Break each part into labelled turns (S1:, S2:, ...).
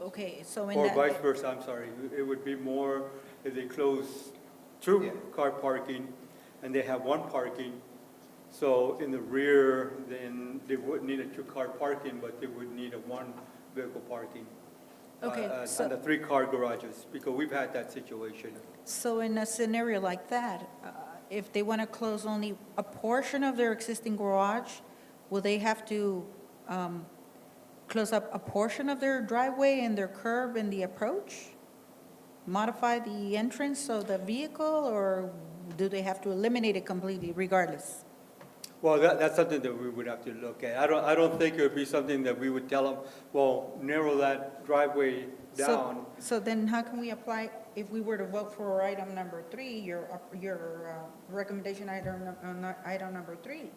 S1: okay, so in
S2: Or vice
S1: that,
S2: versa, I'm sorry. It would be more if they close two
S3: Yeah.
S2: car parking and they have one parking. So in the rear, then they wouldn't need a two-car parking, but they would need a one-vehicle parking. uh,
S1: Okay,
S2: uh,
S1: so-
S2: And the three-car garages, because we've had that situation.
S1: so in a scenario like that, uh, if they want to close only a portion of their existing garage, will they have to um, close up a portion of their driveway and their curb and the approach? Modify the entrance of the vehicle, or do they have to eliminate it completely regardless?
S2: Well, that, that's something that we would have to look at. I don't, I don't think it would be something that we would tell them, well, narrow that driveway
S1: So-
S2: down.
S1: So then how can we apply, if we were to vote for item number three, your, up- your uh, recommendation item, num- uh, nu- item number three?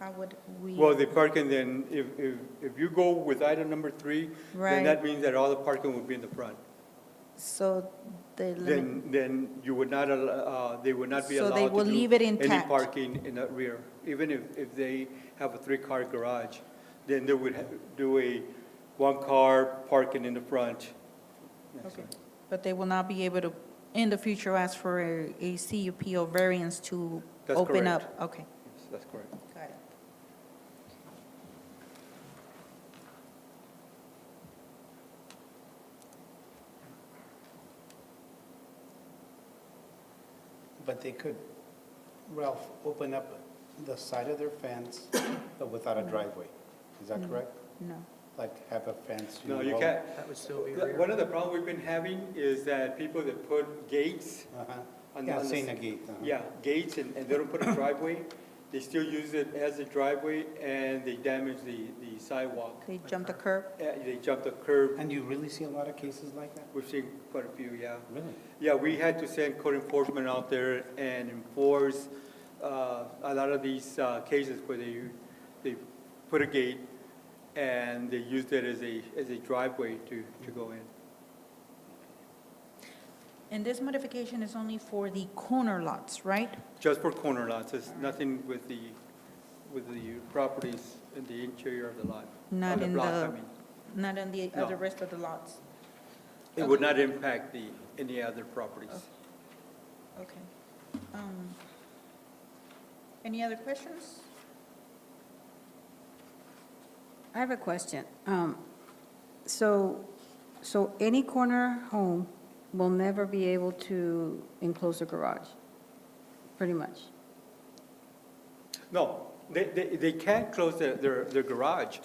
S1: How would we?
S2: Well, the parking then, if, if, if you go with item number three,
S1: Right.
S2: then that means that all the parking would be in the front.
S1: So the limit,
S2: Then, then you would not, al- uh, they would not be
S1: So
S2: allowed
S1: they
S2: to
S1: will
S2: do
S1: leave it
S2: Any
S1: intact.
S2: parking in the rear, even if, if they have a three-car garage, then they would ha- do a one-car parking in the front. Yes, sir.
S1: okay. But they will not be able to, in the future, ask for a a CUP or variance to
S2: That's
S1: open up?
S2: correct.
S1: Okay,
S2: Yes, That's correct.
S1: got it.
S3: But they could, Ralph, open up the side of their fence, but without a driveway. Is that correct?
S1: No.
S3: Like have a fence?
S2: No, you
S3: know,
S2: can't.
S4: That would still be
S2: Th-
S4: rear.
S2: One of the problems we've been having is that people that put gates,
S3: uh-huh.
S2: On the-
S3: Yeah,
S2: on the
S3: saying a
S2: s-
S3: gate. uh-huh.
S2: yeah, gates, and, and they don't put a driveway, they still use it as a driveway, and they damage the, the sidewalk.
S1: They jump the curb?
S2: Uh, They jump the curb,
S3: And you really see a lot of cases like that?
S2: we've seen quite a few, yeah.
S3: Really?
S2: Yeah, we had to send code enforcement out there and enforce uh, a lot of these uh, cases where they, they put a gate and they used it as a, as a driveway to, to go in.
S1: And this modification is only for the corner lots, right?
S2: Just for corner lots, it's nothing with the, with the properties in the interior of the lot.
S1: Not
S2: of
S1: in
S2: block, I
S1: the,
S2: mean.
S1: not on the
S2: No.
S1: other rest of the lots?
S2: It would not impact the, any other properties.
S1: Okay. Um, Any other questions?
S5: I have a question. Um, So, so any corner home will never be able to enclose a garage, pretty much?
S2: No, they, they, they can't close their, their, their garage.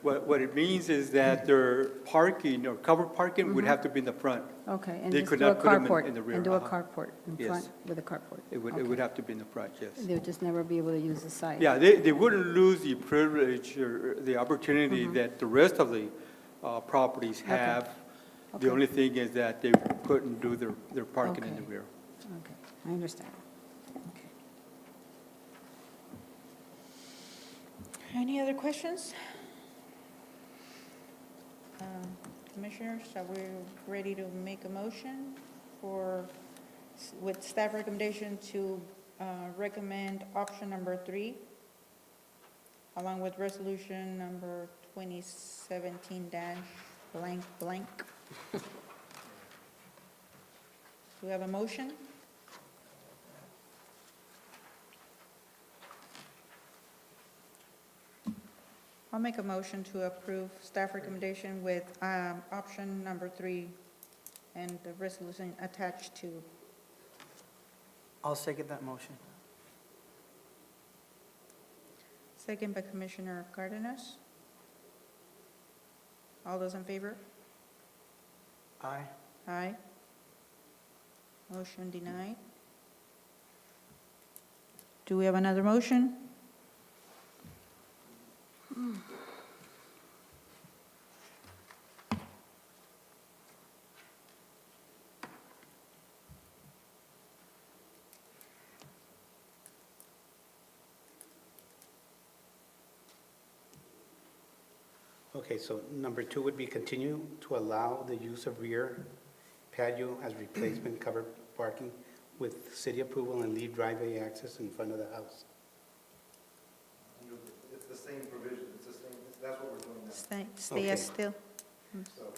S2: What, what it means is that their parking or covered parking
S5: Mm-hmm.
S2: would have to be in the front.
S5: Okay. and
S2: They
S5: just
S2: could
S5: do a
S2: not put 'em in-
S5: carport,
S2: in the rear,
S5: And do a
S2: uh-huh.
S5: carport in
S2: Yes.
S5: front with a carport?
S2: It would, it
S5: Okay.
S2: would have to be in the front, yes.
S5: They'll just never be able to use the site?
S2: Yeah, they, they wouldn't lose the privilege or the
S5: Mm-hmm.
S2: opportunity that the rest of the, uh, properties have. The
S5: Okay.
S2: only thing is that they couldn't do their, their parking in the
S5: Okay.
S2: rear.
S5: Okay, I understand. Okay.
S1: Any other questions? Um, Commissioners, are we ready to make a motion for, with staff recommendation to uh, recommend option number three, along with resolution number 2017 dash blank blank? Do we have a motion? I'll make a motion to approve staff recommendation with um, option number three and the resolution attached to.
S4: I'll second that motion.
S1: Second by Commissioner Cardenas. All those in favor?
S4: Aye.
S1: Aye. Motion denied. Do we have another motion?
S3: Okay, so number two would be continue to allow the use of rear patio as replacement covered parking with city approval and leave driveway access in front of the house.
S6: you know, it's the same provision, it's the same, that's what we're doing now.
S1: Stay stay as
S3: Okay.
S1: still.
S6: So